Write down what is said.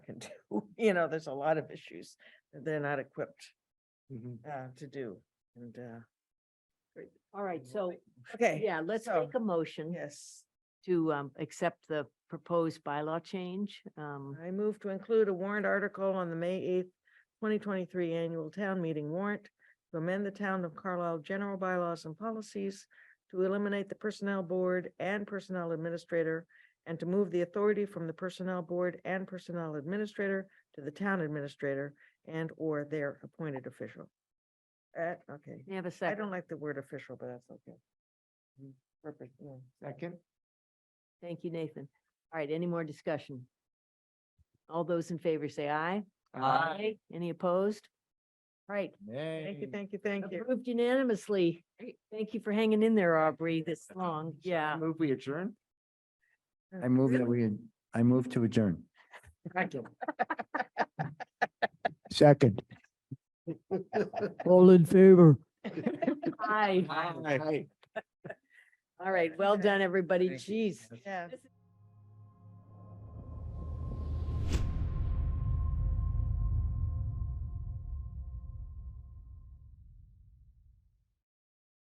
you know, there's a lot of issues that they're not equipped Mhm. uh to do. And uh, All right, so, okay. yeah, let's so- make a motion Yes, to um accept the proposed bylaw change. Um, I move to include a warrant article on the May eighth, twenty twenty-three annual town meeting warrant to amend the town of Carlisle general bylaws and policies to eliminate the personnel board and personnel administrator and to move the authority from the personnel board and personnel administrator to the town administrator and or their appointed official. Uh, okay. may I have a I second? don't like the word official, but that's okay. Purpose, yeah. Second, Thank you, Nathan. All right, any more discussion? All those in favor say aye. Aye. Any opposed? All Right, Thank you, nay. thank you, thank you. approved unanimously. Thank you for hanging in there, Aubrey, this long. Yeah. Move we adjourn? I move that we, I move to adjourn. Second. All in favor? Aye. Aye. All right, well Okay. done, everybody. Thank you. Jeez. Yeah. This is